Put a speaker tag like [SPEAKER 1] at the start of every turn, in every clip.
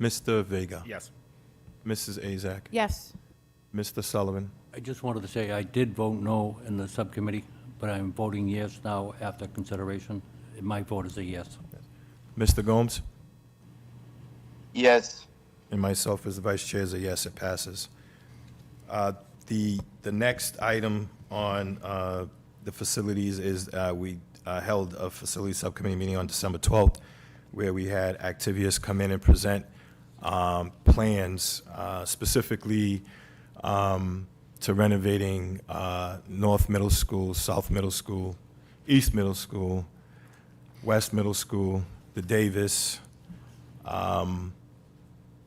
[SPEAKER 1] Mr. Vega.
[SPEAKER 2] Yes.
[SPEAKER 1] Mrs. Azak.
[SPEAKER 3] Yes.
[SPEAKER 1] Mr. Sullivan.
[SPEAKER 4] I just wanted to say, I did vote no in the subcommittee, but I'm voting yes now after consideration. My vote is a yes.
[SPEAKER 1] Mr. Gomes.
[SPEAKER 5] yes,
[SPEAKER 1] And myself as the vice chair is a yes, it passes. Uh, The, the next item on uh, the facilities is, uh, we uh, held a facility subcommittee meeting on December 12th, where we had Activius come in and present um, plans uh, specifically um, to renovating uh, North Middle School, South Middle School, East Middle School, West Middle School, the Davis,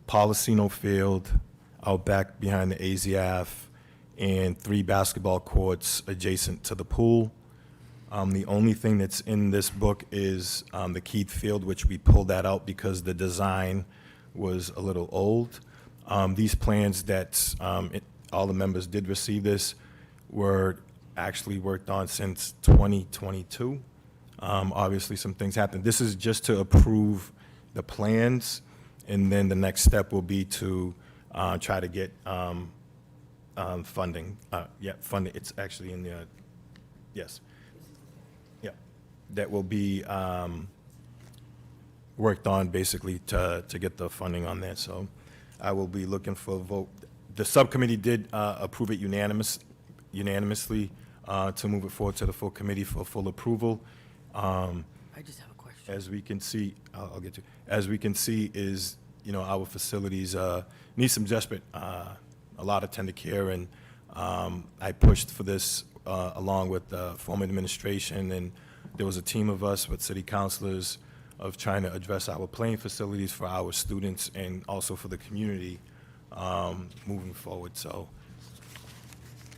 [SPEAKER 1] Policino Field, out back behind the AZF, and three basketball courts adjacent to the pool. Um, the only thing that's in this book is, um, the Keith Field, which we pulled that out because the design was a little old. Um, these plans that, um, it, all the members did receive this were actually worked on since 2022. Um, Obviously, some things happened. This is just to approve the plans, and then the next step will be to uh, try to get um, um, funding. Uh, Yeah, funding, it's actually in the, uh, yes. Yeah, that will be um, worked on basically to, to get the funding on that. So I will be looking for a vote. The subcommittee did uh, approve it unanimous, unanimously uh, to move it forward to the full committee for full approval. Um,
[SPEAKER 6] I just have a question.
[SPEAKER 1] as we can see, I'll, I'll get to, as we can see is, you know, our facilities, uh, need some desperate, uh, a lot of tender care, and, um, I pushed for this, uh, along with the former administration, and there was a team of us with city councilors of trying to address our playing facilities for our students and also for the community, um, moving forward, so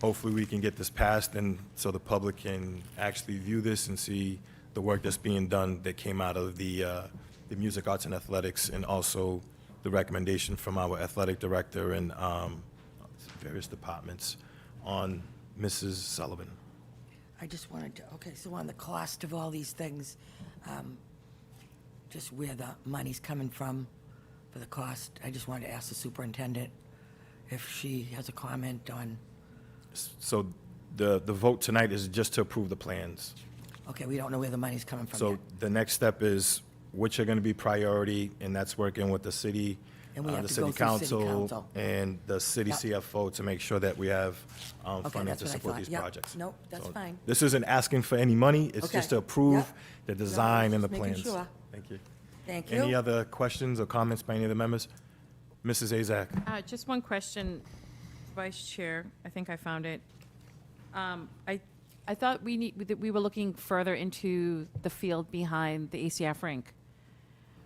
[SPEAKER 1] hopefully we can get this passed and so the public can actually view this and see the work that's being done that came out of the, uh, the Music Arts and Athletics and also the recommendation from our athletic director and, um, various departments on Mrs. Sullivan.
[SPEAKER 6] I just wanted to, okay, so on the cost of all these things, um, just where the money's coming from for the cost, I just wanted to ask the superintendent if she has a comment on,
[SPEAKER 1] So the, the vote tonight is just to approve the plans.
[SPEAKER 6] okay, we don't know where the money's coming from
[SPEAKER 1] So
[SPEAKER 6] yet.
[SPEAKER 1] the next step is which are going to be priority, and that's working with the city,
[SPEAKER 6] And we
[SPEAKER 1] uh,
[SPEAKER 6] have
[SPEAKER 1] the
[SPEAKER 6] to
[SPEAKER 1] city
[SPEAKER 6] go through city
[SPEAKER 1] council,
[SPEAKER 6] council.
[SPEAKER 1] and the city
[SPEAKER 6] Yep.
[SPEAKER 1] CFO to make sure that we have um,
[SPEAKER 6] Okay,
[SPEAKER 1] funding
[SPEAKER 6] that's
[SPEAKER 1] to
[SPEAKER 6] what I
[SPEAKER 1] support
[SPEAKER 6] thought.
[SPEAKER 1] these
[SPEAKER 6] Yep.
[SPEAKER 1] projects.
[SPEAKER 6] Nope, that's
[SPEAKER 1] So
[SPEAKER 6] fine.
[SPEAKER 1] This isn't asking for any money, it's just to
[SPEAKER 6] Okay.
[SPEAKER 1] approve
[SPEAKER 6] Yep.
[SPEAKER 1] the design and the
[SPEAKER 6] just making
[SPEAKER 1] plans.
[SPEAKER 6] sure.
[SPEAKER 1] Thank you.
[SPEAKER 6] Thank you.
[SPEAKER 1] Any other questions or comments by any of the members? Mrs. Azak?
[SPEAKER 3] Uh, Just one question, Vice Chair, I think I found it. Um, I, I thought we need, that we were looking further into the field behind the ACF rink.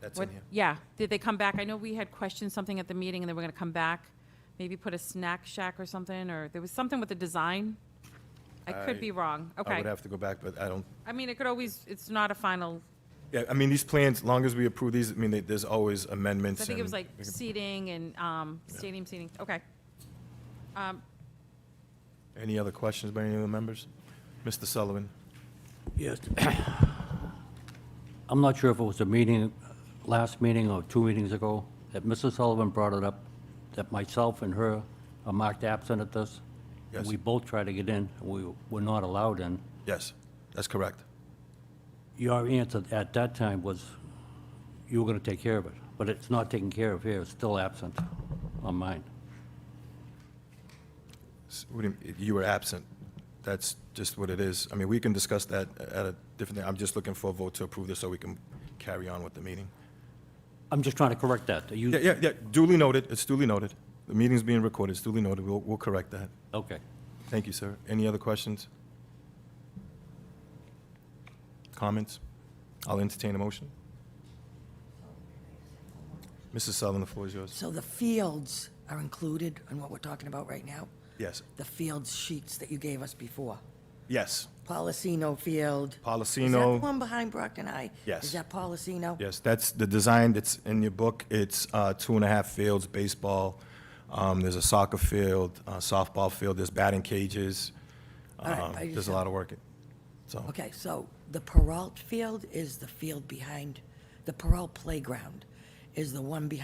[SPEAKER 1] That's
[SPEAKER 3] What-
[SPEAKER 1] in here.
[SPEAKER 3] Yeah, did they come back? I know we had questioned something at the meeting, and they were going to come back, maybe put a snack shack or something, or there was something with the design? I could
[SPEAKER 1] I-
[SPEAKER 3] be wrong,
[SPEAKER 1] I
[SPEAKER 3] okay.
[SPEAKER 1] would have to go back, but I don't,
[SPEAKER 3] I mean, it could always, it's not a final,
[SPEAKER 1] yeah, I mean, these plans, long as we approve these, I mean, they- there's always amendments.
[SPEAKER 3] I think it was
[SPEAKER 1] and-
[SPEAKER 3] like seating and um, stadium seating, okay.
[SPEAKER 1] Any other questions by any of the members? Mr. Sullivan?
[SPEAKER 4] Yes. I'm not sure if it was a meeting, last meeting or two meetings ago, that Mrs. Sullivan brought it up, that myself and her are marked absent at this. and
[SPEAKER 1] Yes.
[SPEAKER 4] We both tried to get in, we were not allowed in.
[SPEAKER 1] Yes, that's correct.
[SPEAKER 4] Your answer at that time was you were going to take care of it, but it's not taken care of here, it's still absent on mine.
[SPEAKER 1] S- what do You mean, you were absent. That's just what it is. I mean, we can discuss that at a different, I'm just looking for a vote to approve this so we can carry on with the meeting.
[SPEAKER 4] I'm just trying to correct that. You-
[SPEAKER 1] Yeah, yeah, yeah, duly noted, it's duly noted. The meeting's being recorded, it's duly noted, we'll, we'll correct that.
[SPEAKER 4] Okay.
[SPEAKER 1] Thank you, sir. Any other questions? Comments? I'll entertain a motion. Mrs. Sullivan, the floor is yours.
[SPEAKER 6] So the fields are included in what we're talking about right now?
[SPEAKER 1] Yes,
[SPEAKER 6] The fields sheets that you gave us before?
[SPEAKER 1] yes,
[SPEAKER 6] Policino Field? Is that the
[SPEAKER 1] Policino.
[SPEAKER 6] one behind Brockton High?
[SPEAKER 1] Yes.
[SPEAKER 6] Is that Policino?
[SPEAKER 1] Yes, that's the design that's in your book. It's uh, two and a half fields, baseball, um, there's a soccer field, uh, softball field, there's batting cages.
[SPEAKER 6] All right,
[SPEAKER 1] Um,
[SPEAKER 6] I just
[SPEAKER 1] There's a
[SPEAKER 6] have-
[SPEAKER 1] lot of work, it- so,
[SPEAKER 6] Okay, so the Peralt Field is the field behind, the Peralt Playground is the one behind